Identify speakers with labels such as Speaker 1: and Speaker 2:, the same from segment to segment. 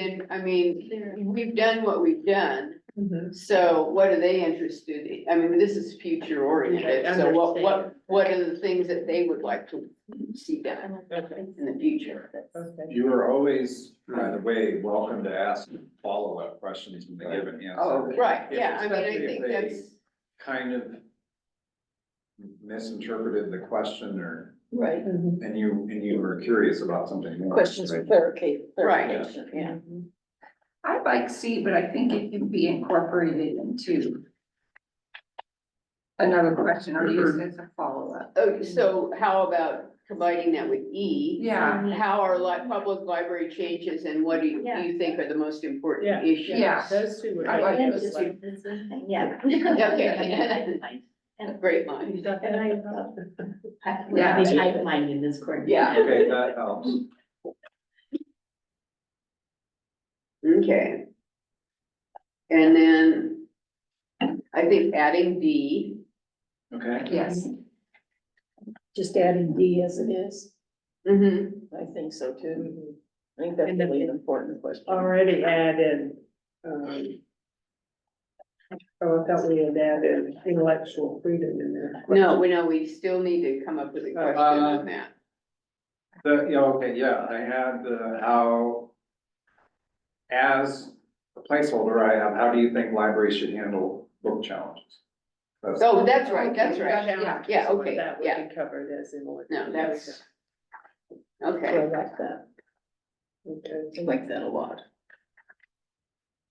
Speaker 1: And I mean, we've done what we've done,
Speaker 2: Mhm.
Speaker 1: so what are they interested in? I mean, this is future oriented, so what, what, what are the things that they would like to see done in the future?
Speaker 2: Okay.
Speaker 3: You are always, by the way, welcome to ask follow-up questions when they give an
Speaker 4: Oh,
Speaker 3: answer.
Speaker 1: Right, yeah, I mean, I
Speaker 3: Especially if
Speaker 1: think
Speaker 3: they
Speaker 1: that's,
Speaker 3: Kind of misinterpreted the question or,
Speaker 5: Right,
Speaker 2: Mhm.
Speaker 3: and you, and you were curious about something more.
Speaker 5: questions for
Speaker 3: right?
Speaker 5: clarification,
Speaker 1: Right.
Speaker 5: clarification, yeah.
Speaker 4: I like C, but I think it can be incorporated into another question or used as a follow-up.
Speaker 1: oh, so how about combining that with E?
Speaker 4: Yeah,
Speaker 1: How are li- public library changes and what do you, do you think are the most
Speaker 2: Yeah.
Speaker 1: important issues?
Speaker 4: Yeah.
Speaker 2: Those two were.
Speaker 4: I like
Speaker 2: Yeah,
Speaker 4: those
Speaker 2: just
Speaker 4: two.
Speaker 2: like-
Speaker 6: Yeah.
Speaker 1: Okay.
Speaker 6: And
Speaker 1: Great line.
Speaker 6: and I, uh, I,
Speaker 4: Yeah.
Speaker 6: I think I mind in this court.
Speaker 1: Yeah.
Speaker 3: Okay, that helps.
Speaker 1: Okay. And then I think adding D,
Speaker 3: Okay,
Speaker 4: yes.
Speaker 5: Just adding D as it is,
Speaker 1: mhm,
Speaker 5: I think so too. I think that's
Speaker 2: And then-
Speaker 5: really an important question.
Speaker 2: Already added, um. Oh, I thought we had added intellectual freedom in there.
Speaker 1: no, we know, we still need to come up with a question on that.
Speaker 3: the, yeah, okay, yeah, I had the, how, as a placeholder, I have, how do you think libraries should handle book challenges? That's-
Speaker 1: Oh, that's right, that's right,
Speaker 4: Yeah.
Speaker 1: yeah,
Speaker 2: So
Speaker 1: okay,
Speaker 2: That
Speaker 1: yeah.
Speaker 2: would be covered as intellectual.
Speaker 1: no, that's.
Speaker 5: I
Speaker 1: Okay,
Speaker 5: like that,
Speaker 2: Okay.
Speaker 5: I like that a lot.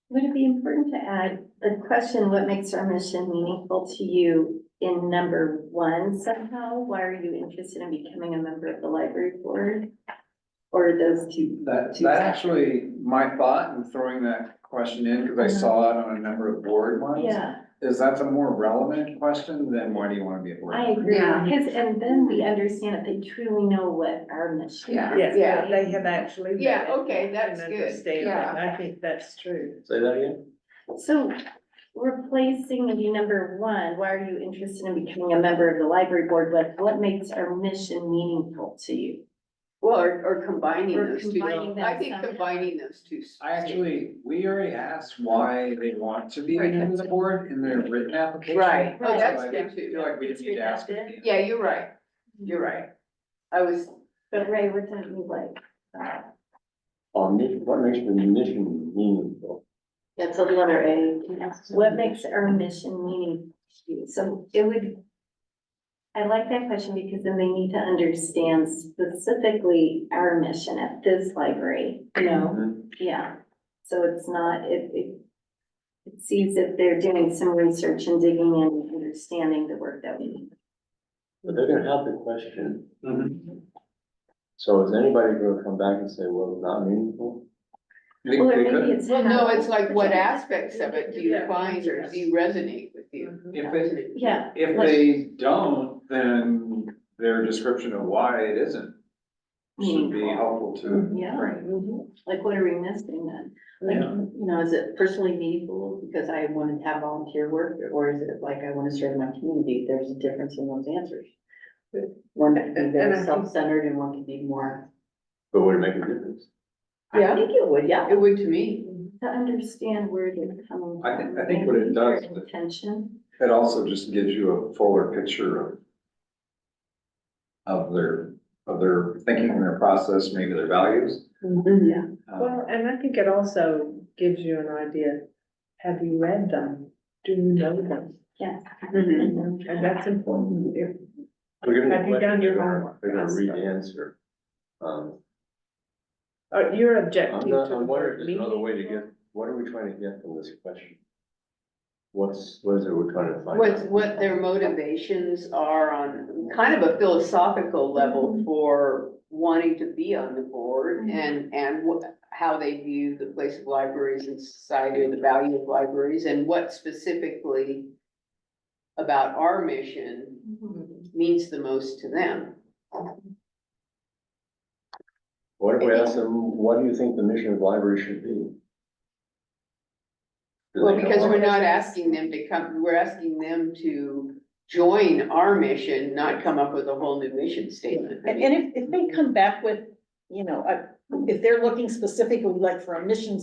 Speaker 6: Would it be important to add the question, what makes our mission meaningful to you in number one somehow? Why are you interested in becoming a member of the library board? Or those two?
Speaker 3: That,
Speaker 6: two
Speaker 3: that
Speaker 6: separate-
Speaker 3: actually, my thought in throwing that question in, because I saw it on a number of board ones.
Speaker 6: Uh-huh. Yeah.
Speaker 3: Is that's a more relevant question than why do you want to be a board?
Speaker 6: I
Speaker 3: member?
Speaker 6: agree,
Speaker 4: Yeah.
Speaker 6: because, and then we understand that they truly know what our mission
Speaker 4: Yeah.
Speaker 6: is.
Speaker 2: Yes,
Speaker 1: Yeah.
Speaker 2: that they have actually. read
Speaker 1: Yeah,
Speaker 2: it
Speaker 1: okay, that's
Speaker 2: and
Speaker 1: good.
Speaker 2: understand it.
Speaker 4: Yeah.
Speaker 2: I think that's true.
Speaker 7: Say that again?
Speaker 6: So replacing the number one, why are you interested in becoming a member of the library board? What, what makes our mission meaningful to you?
Speaker 1: well, or, or combining
Speaker 6: Or
Speaker 1: those two,
Speaker 6: combining them
Speaker 1: I think
Speaker 6: somehow.
Speaker 1: combining those two.
Speaker 3: I actually, we already asked why they want to be a
Speaker 4: Right.
Speaker 3: member of the board in their written application.
Speaker 1: Right, oh,
Speaker 6: Right.
Speaker 1: that's
Speaker 3: So I
Speaker 1: good
Speaker 3: feel
Speaker 1: too,
Speaker 3: like we didn't need to ask. it again.
Speaker 1: yeah, you're right, you're right. I was,
Speaker 6: But Ray, what don't you like?
Speaker 7: On mission, what makes the mission meaningful?
Speaker 6: That's a letter A. What makes our mission meaningful to you? So it would, I like that question because then they need to understand specifically our mission at this library, you know? Yeah, so it's not, it, it. It seems if they're doing some research and digging in and understanding the work that we do.
Speaker 7: But they're gonna have the question.
Speaker 3: Mhm.
Speaker 7: Mm-hmm. So is anybody gonna come back and say, well, it's not meaningful?
Speaker 3: You think
Speaker 6: Well,
Speaker 3: they
Speaker 6: or
Speaker 3: could?
Speaker 6: maybe it's.
Speaker 1: well, no,
Speaker 6: how-
Speaker 1: it's like what aspects of it do you
Speaker 2: Yeah.
Speaker 1: find or do you resonate with you?
Speaker 3: If they,
Speaker 6: Yeah,
Speaker 3: if they don't, then their description of why it isn't should be
Speaker 6: Meaningful.
Speaker 3: helpful to.
Speaker 6: yeah, Mm-hmm. like what are we missing then?
Speaker 3: Like,
Speaker 6: you know, is it personally meaningful because I want to have volunteer work, or is it like I want to serve my community? There's a difference in those answers. One
Speaker 2: can be very And I think-
Speaker 6: self-centered and one can be more.
Speaker 7: But would it make a difference?
Speaker 1: Yeah.
Speaker 6: I think it would, yeah.
Speaker 1: It would to me,
Speaker 6: To understand where they're coming from.
Speaker 3: I think- I think what it does-
Speaker 6: their Intention.
Speaker 3: It also just gives you a fuller picture of of their, of their thinking, their process, maybe their values.
Speaker 1: yeah,
Speaker 3: Um,
Speaker 2: Well, and I think it also gives you an idea, have you read them? Do you know them?
Speaker 6: Yeah.
Speaker 1: Mhm.
Speaker 3: Mm-hmm.
Speaker 2: And that's important. If-
Speaker 7: They're gonna
Speaker 2: Have you done your
Speaker 7: they're gonna-
Speaker 2: homework?
Speaker 7: They're gonna read the answer. Um,
Speaker 2: Uh, you're objecting
Speaker 7: I'm
Speaker 2: to
Speaker 7: not,
Speaker 2: the
Speaker 7: I'm
Speaker 2: word
Speaker 7: wondering, if there's another way to
Speaker 2: meaningful.
Speaker 7: get, what are we trying to get from this question? What's, what is it we're trying to find
Speaker 1: What's,
Speaker 7: out?
Speaker 1: what their motivations are on kind of a philosophical
Speaker 5: Mm-hmm.
Speaker 1: level for wanting to be on the board and, and what, how they view the place of libraries in society or the value of libraries and what specifically about our mission
Speaker 6: Mm-hmm.
Speaker 1: means the most to them.
Speaker 7: What if we ask them, what do you think the mission of library should be? Do they
Speaker 1: Well,
Speaker 7: know
Speaker 1: because
Speaker 7: what-
Speaker 1: we're not asking them to come, we're asking them to join our mission, not come up with a whole new mission statement. I
Speaker 5: And, and if, if they come back with, you know, uh, if they're looking specifically like for a mission